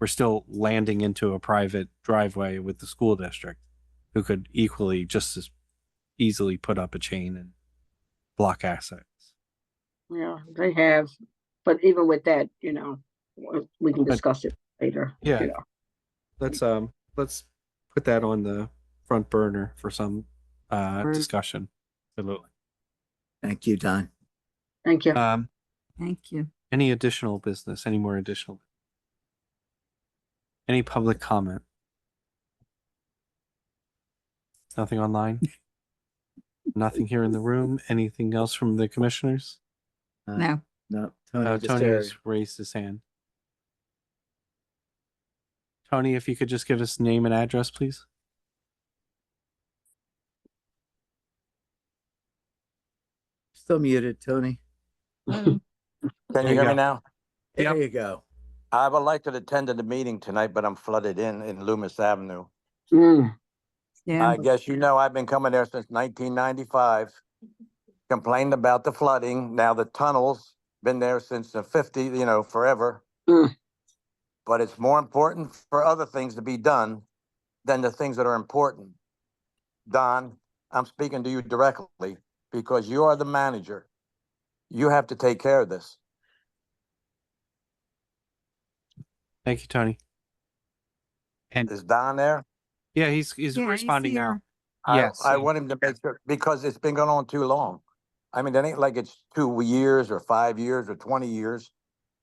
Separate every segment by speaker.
Speaker 1: we're still landing into a private driveway with the school district who could equally just as easily put up a chain and block assets.
Speaker 2: Yeah, they have, but even with that, you know, w- we can
Speaker 1: But-
Speaker 2: discuss it later. you
Speaker 1: Yeah.
Speaker 2: know.
Speaker 1: Let's um let's put that on the front burner for some uh
Speaker 3: Burn.
Speaker 1: discussion. Absolutely.
Speaker 4: Thank you, Don.
Speaker 2: Thank you.
Speaker 1: Um
Speaker 3: Thank you.
Speaker 1: Any additional business? Any more additional? Any public comment? Nothing online? Nothing here in the room? Anything else from the commissioners?
Speaker 4: Uh,
Speaker 3: No,
Speaker 4: No,
Speaker 1: Uh,
Speaker 4: Tony
Speaker 1: Tony
Speaker 4: Tony.
Speaker 1: has raised his hand. Tony, if you could just give us name and address, please?
Speaker 4: Still muted, Tony.
Speaker 5: Can
Speaker 1: There
Speaker 5: you
Speaker 1: you
Speaker 5: hear
Speaker 1: go.
Speaker 5: me now?
Speaker 4: There
Speaker 1: Yep.
Speaker 4: you go.
Speaker 5: I would like to attend to the meeting tonight, but I'm flooded in, in Loomis Avenue.
Speaker 2: Mm,
Speaker 3: yeah,
Speaker 5: I guess you know I've been coming there since nineteen ninety-five. Complained about the flooding. Now the tunnels, been there since the fifty, you know, forever.
Speaker 2: Mm.
Speaker 5: But it's more important for other things to be done than the things that are important. Don, I'm speaking to you directly because you are the manager. You have to take care of this.
Speaker 1: Thank you, Tony.
Speaker 5: Is Don there?
Speaker 1: Yeah, he's, he's
Speaker 3: Yeah, he's
Speaker 1: responding now.
Speaker 3: here.
Speaker 5: I-
Speaker 1: Yes,
Speaker 5: I
Speaker 1: and-
Speaker 5: want him to make sure, because it's been going on too long. I mean, it ain't like it's two years or five years or twenty years.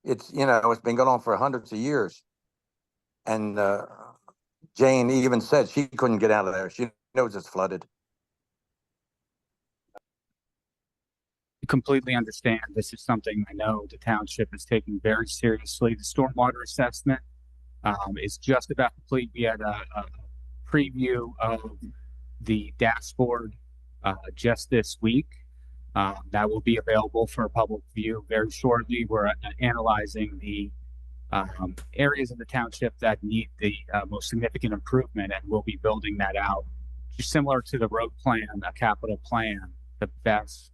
Speaker 5: It's, you know, it's been going on for hundreds of years. And, uh, Jane even said she couldn't get out of there. She knows it's flooded.
Speaker 6: completely understand this is something I know the township is taking very seriously. The stormwater assessment um, is just about complete. We had a, a preview of the dashboard uh, just this week. Uh, that will be available for public view very shortly. We're uh, analyzing the um, areas of the township that need the uh, most significant improvement, and we'll be building that out. Just similar to the road plan, a capital plan, the best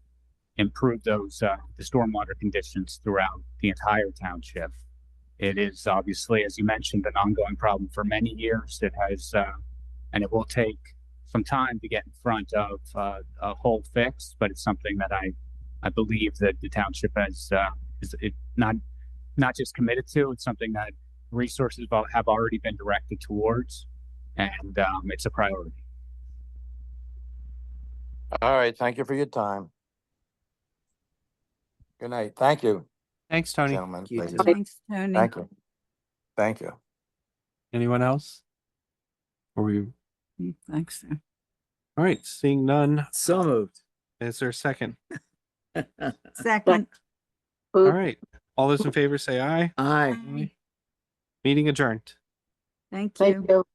Speaker 6: improve those uh, the stormwater conditions throughout the entire township. It is obviously, as you mentioned, an ongoing problem for many years. It has, uh, and it will take some time to get in front of uh, a whole fix, but it's something that I, I believe that the township has uh, is it not not just committed to. It's something that resources have al- have already been directed towards, and um, it's a priority.
Speaker 5: All right, thank you for your time. Good night. Thank you,
Speaker 1: Thanks, Tony.
Speaker 5: gentlemen.
Speaker 4: you
Speaker 5: ladies.
Speaker 4: too.
Speaker 3: thanks, Tony.
Speaker 5: Thank you. Thank you.
Speaker 1: Anyone else? Or we,
Speaker 3: Mm, Thanks. so.
Speaker 1: all right, seeing none.
Speaker 4: So moved.
Speaker 1: Is there a second?
Speaker 3: Second.
Speaker 1: All
Speaker 2: food-
Speaker 1: right. All those in favor say aye.
Speaker 4: Aye.
Speaker 3: Aye.
Speaker 1: Meeting adjourned.
Speaker 3: Thank you.
Speaker 2: Thank you.